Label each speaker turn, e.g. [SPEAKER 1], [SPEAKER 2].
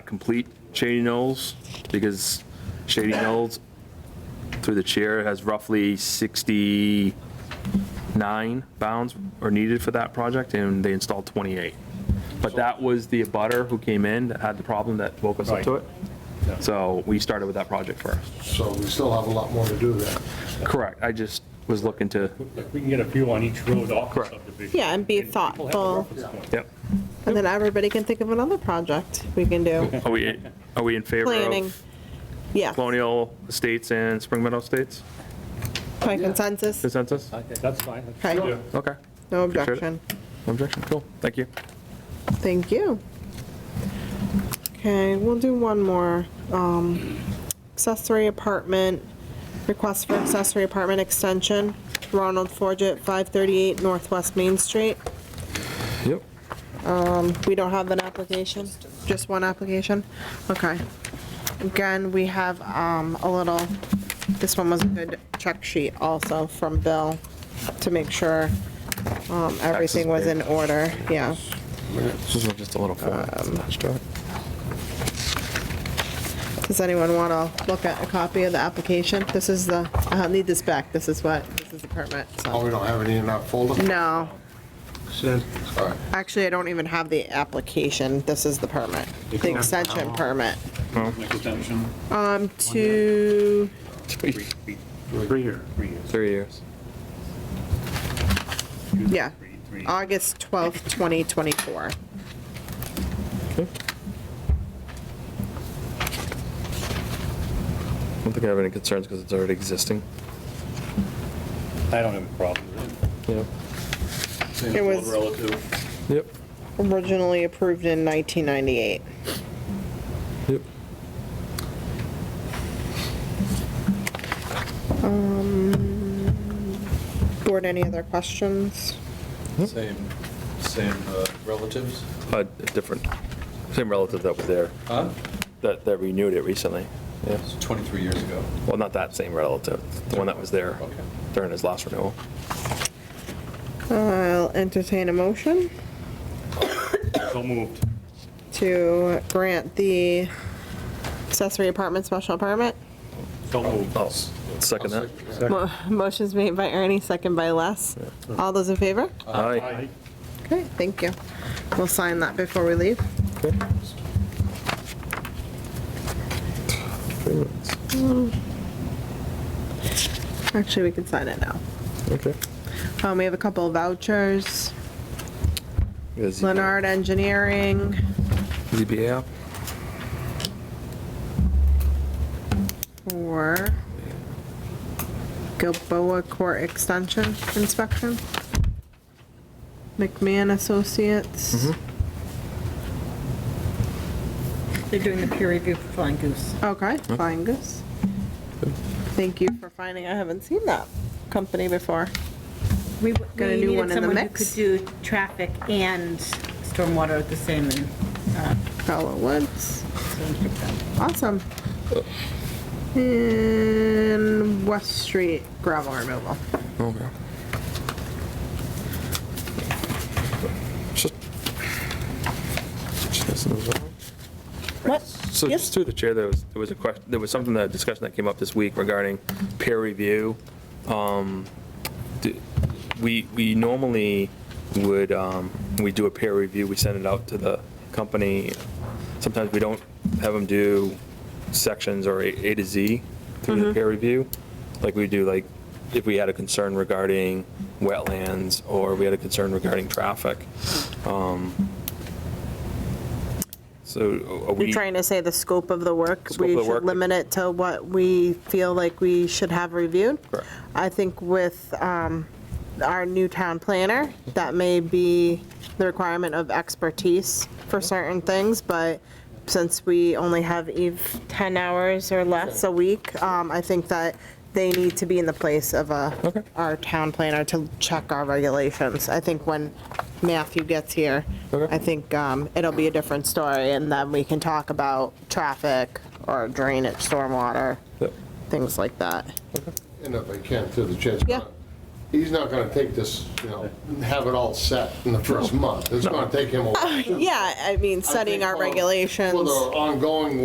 [SPEAKER 1] complete Shady Knolls, because Shady Knolls, through the chair, has roughly 69 bounds are needed for that project, and they installed 28. But that was the abutter who came in that had the problem that woke us up to it. So we started with that project first.
[SPEAKER 2] So we still have a lot more to do there.
[SPEAKER 1] Correct, I just was looking to,
[SPEAKER 3] Like, we can get a few on each road off the
[SPEAKER 1] Correct.
[SPEAKER 3] subdivision.
[SPEAKER 4] Yeah, and be
[SPEAKER 3] people have a
[SPEAKER 4] thoughtful,
[SPEAKER 3] reference point.
[SPEAKER 1] yep.
[SPEAKER 4] and then everybody can think of another project we can do,
[SPEAKER 1] Are we, are we in favor
[SPEAKER 4] planning.
[SPEAKER 1] of
[SPEAKER 4] Yeah, by
[SPEAKER 1] Colonial Estates and Spring Meadow Estates
[SPEAKER 4] consensus,
[SPEAKER 1] consensus?
[SPEAKER 3] Okay, That's fine. that's-
[SPEAKER 4] Okay.
[SPEAKER 3] Yeah.
[SPEAKER 1] Okay,
[SPEAKER 4] no
[SPEAKER 1] appreciate it.
[SPEAKER 4] objection.
[SPEAKER 1] no objection, cool, thank you.
[SPEAKER 4] Thank you. Okay, we'll do one more. Um, Accessory apartment, request for accessory apartment extension, Ronald Forget, 538 Northwest Main Street.
[SPEAKER 1] Yep.
[SPEAKER 4] We don't have an application, just one application? Okay. Again, we have um, a little, this one was a good check sheet also from Bill to make sure um, everything was in order, yeah.
[SPEAKER 1] This is just a little form attached to it.
[SPEAKER 4] Does anyone want to look at a copy of the application? This is the, I need this back, this is what, this is the permit,
[SPEAKER 2] Oh,
[SPEAKER 4] so.
[SPEAKER 2] we don't have any in our folder?
[SPEAKER 4] No,
[SPEAKER 2] All right.
[SPEAKER 4] actually, I don't even have the application, this is the permit, the extension permit.
[SPEAKER 3] Next extension,
[SPEAKER 4] Um, to,
[SPEAKER 3] three, three,
[SPEAKER 5] Three year.
[SPEAKER 3] three years.
[SPEAKER 1] Three years.
[SPEAKER 4] yeah,
[SPEAKER 3] Three, three.
[SPEAKER 4] August 12th, 2024.
[SPEAKER 1] I don't think I have any concerns because it's already existing.
[SPEAKER 3] I don't have a problem with it.
[SPEAKER 1] Yep.
[SPEAKER 4] It was
[SPEAKER 3] Relative.
[SPEAKER 1] Yep,
[SPEAKER 4] originally approved in 1998.
[SPEAKER 1] yep.
[SPEAKER 4] Um, Board, any other questions?
[SPEAKER 6] Same, same uh, relatives?
[SPEAKER 1] Uh, A different, same relative that was there,
[SPEAKER 6] Huh?
[SPEAKER 1] that, that renewed it recently. Yes.
[SPEAKER 6] It's 23 years ago.
[SPEAKER 1] Well, not that same relative, the one that was there
[SPEAKER 6] Okay.
[SPEAKER 1] during his last renewal.
[SPEAKER 4] I'll entertain a motion
[SPEAKER 3] So moved.
[SPEAKER 4] to grant the accessory apartment special permit.
[SPEAKER 3] So moved.
[SPEAKER 1] I'll s- Oh, second that.
[SPEAKER 4] Mo- Motion's made by Ernie, second by Les. All those in favor?
[SPEAKER 1] Aye.
[SPEAKER 3] Aye.
[SPEAKER 4] Okay, thank you. We'll sign that before we leave. Actually, we can sign it now.
[SPEAKER 1] Okay.
[SPEAKER 4] Um, We have a couple of vouchers,
[SPEAKER 1] Is-
[SPEAKER 4] Leonard Engineering,
[SPEAKER 1] ZBA app?
[SPEAKER 4] for Gilboa Court Extension Inspection. McMahon Associates.
[SPEAKER 7] They're doing the peer review for Flying Goose.
[SPEAKER 4] Okay, fine, Gus. Thank you for finding, I haven't seen that company before.
[SPEAKER 7] We
[SPEAKER 4] Got a
[SPEAKER 7] we
[SPEAKER 4] new
[SPEAKER 7] needed
[SPEAKER 4] one in the
[SPEAKER 7] someone who
[SPEAKER 4] mix?
[SPEAKER 7] Could do traffic and stormwater at the same, and, uh,
[SPEAKER 4] Fellow Woods,
[SPEAKER 7] so we picked them.
[SPEAKER 4] awesome. And West Street gravel removal.
[SPEAKER 1] Okay. Just- just listen to that.
[SPEAKER 4] What?
[SPEAKER 1] So
[SPEAKER 4] Yes.
[SPEAKER 1] just through the chair, there was, there was a question, there was something, that discussion that came up this week regarding peer review. Um, do- We, we normally would, um, when we do a peer review, we send it out to the company. Sometimes we don't have them do sections or A A to Z through
[SPEAKER 4] Mm-hmm.
[SPEAKER 1] the peer review. Like we do, like, if we had a concern regarding wetlands or we had a concern regarding traffic. Um, So are we?
[SPEAKER 4] You're trying to say the scope of the work,
[SPEAKER 1] Scope
[SPEAKER 4] we
[SPEAKER 1] of the work.
[SPEAKER 4] should limit it to what we feel like we should have reviewed?
[SPEAKER 1] Correct.
[SPEAKER 4] I think with um, our new town planner, that may be the requirement of expertise for certain things, but since we only have Eve 10 hours or less a week, um, I think that they need to be in the place of
[SPEAKER 1] Okay.
[SPEAKER 4] a, our town planner to check our regulations. I think when Matthew gets here,
[SPEAKER 1] Okay.
[SPEAKER 4] I think um, it'll be a different story, and then we can talk about traffic or drainage, stormwater,
[SPEAKER 1] Yep.
[SPEAKER 4] things like that.
[SPEAKER 2] And if I can, through the chance.
[SPEAKER 4] Yeah.
[SPEAKER 2] he's not gonna take this, you know, have it all set in the first month. It's gonna take him a while.
[SPEAKER 4] Yeah, I mean,
[SPEAKER 2] I
[SPEAKER 4] setting
[SPEAKER 2] think
[SPEAKER 4] our
[SPEAKER 2] for-
[SPEAKER 4] regulations.
[SPEAKER 2] For the ongoing